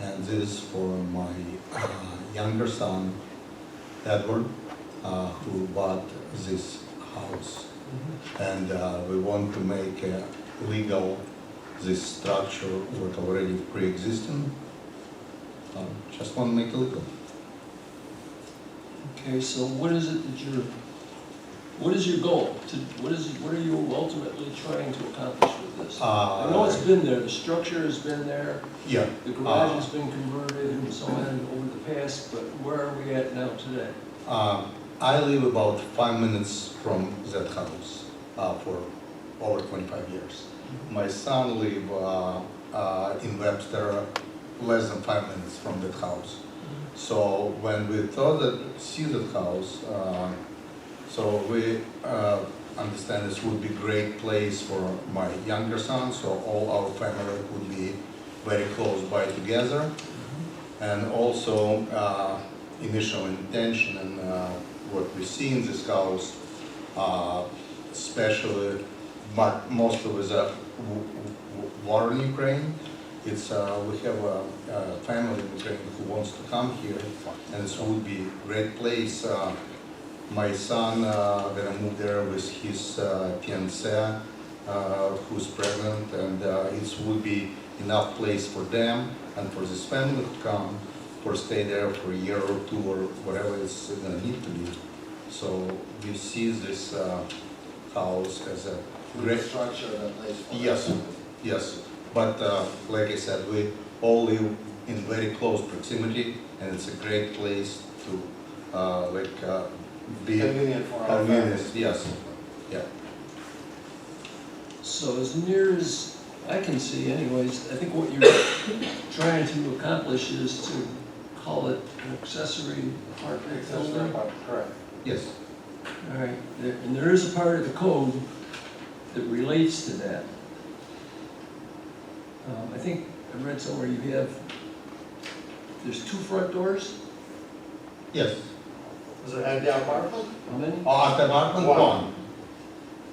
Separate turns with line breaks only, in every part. And this is for my uh, younger son, Edward, uh, who bought this house. And uh, we want to make uh, legal this structure what already pre-existing. Uh, Just want to make it legal.
Okay, so what is it that you're, what is your goal? To, what is, what are you ultimately trying to accomplish with this? I know it's
Uh,
been there, the structure has been there,
Yeah,
the garage has been converted and so on over the past, but where are we at now today?
Uh, I live about five minutes from that house uh, for over 25 years. My son live uh, uh, in Webster, less than five minutes from that house. So when we thought that, see that house, uh, so we uh, understand this would be great place for my younger son, so all our family would be very close by together. And also, uh, initial intention and uh, what we see in this house, uh, especially, but mostly with the w- w- war in Ukraine, it's, uh, we have a a family in Ukraine who wants to come here, and it would be great place. Uh, My son, uh, gonna move there with his uh, fiancée, uh, who's pregnant, and uh, it would be enough place for them and for this family to come, for stay there for a year or two or whatever it's gonna need to be. So we see this uh, house as a great,
structure that place.
Yes. yes, but uh, like I said, we all live in very close proximity and it's a great place to, uh, like, uh, be
Convenient for our
convenient,
families.
yes.
So as near as I can see anyways, I think what you're trying to accomplish is to call it an accessory apartment building.
Correct.
Yes,
All right, there- and there is a part of the code that relates to that. Um, I think I read somewhere you have, there's two front doors,
yes.
Was it at the apartment?
how many?
Oh, at the apartment
One.
one,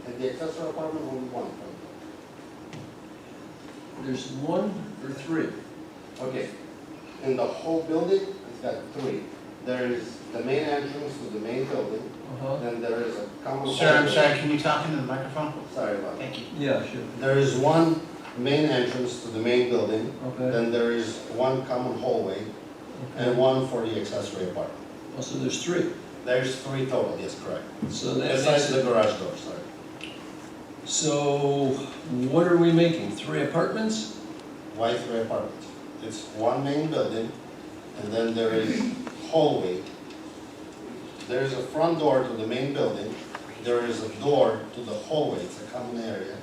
At the accessory apartment, only one.
There's one or three?
Okay. In the whole building, it's got three. There is the main entrance to the main building,
Uh-huh,
then there is a common.
Sir, I'm
hallway.
sorry, can you talk into the microphone?
Sorry about that.
Thank you.
yeah, sure,
There is one main entrance to the main building,
okay.
then there is one common hallway and
okay.
one for the accessory apartment.
Oh, so there's three,
There's three total, yes, correct.
so that
Besides
makes
the
it,
garage door, sorry.
so what are we making, three apartments?
Why three apartments? It's one main building, and then there is hallway. There is a front door to the main building, there is a door to the hallway, it's a common area.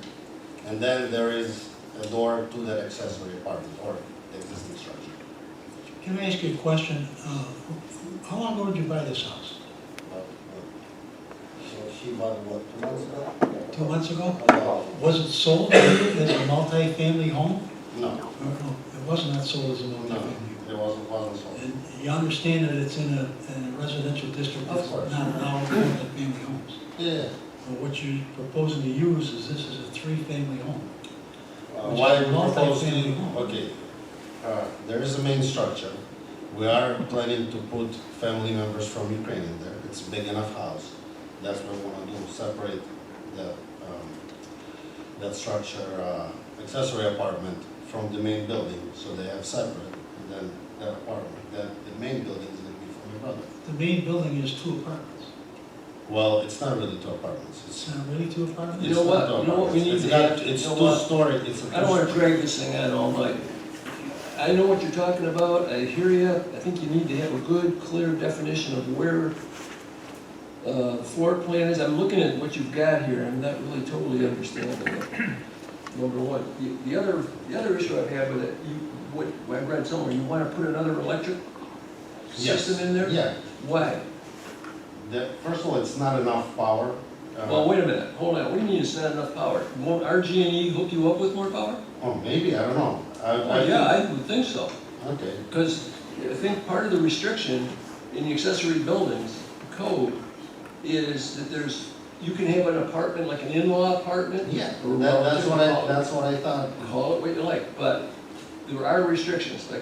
And then there is a door to the accessory apartment or the existing structure.
Can I ask you a question? Uh, How long ago did you buy this house?
But, uh, So she bought what, two months ago?
Two months ago?
No,
Was it sold as a multi-family home?
no,
Or no, it was not sold as a
no,
multifamily.
it wasn't, wasn't sold.
And you understand that it's in a in a residential district
Of
that's
course.
not allowed multi-family homes.
Yeah.
But what you're proposing to use is this is a three-family home.
Uh,
Which
Why
is
we propose to,
multi-family home.
okay, uh, there is a main structure. We are planning to put family members from Ukraine in there. It's a big enough house. That's what we wanna do, separate the, um, that structure, uh, accessory apartment from the main building, so they have separate. And then that apartment, that, the main building is gonna be for my brother.
The main building is two apartments.
Well, it's not really two apartments, it's.
It's not really two apartments?
You know
it's
what?
not two
You know what we
apartments.
need
It's
to
got-
have?
It's
You know
two
what?
story, it's a.
I don't wanna drag this thing out all night. I know what you're talking about, I hear you, I think you need to have a good, clear definition of where uh, the floor plan is, I'm looking at what you've got here, I'm not really totally understanding it, number one. The- The other, the other issue I've had with it, you, what, what I read somewhere, you wanna put another electric
Yes.
system in there?
Yeah,
Why?
The, first of all, it's not enough power. Uh,
Well, wait a minute, hold on, what do you mean it's not enough power? Won't RG&E E hook you up with more power?
Oh, maybe, I don't know. I, Uh, I
Well,
think-
yeah, I would think so.
Okay,
Because I think part of the restriction in the accessory buildings code is that there's, you can have an apartment, like an in-law apartment.
yeah,
or
that, that's what I,
call it-
that's what I thought.
Call it what you like, but there are restrictions, like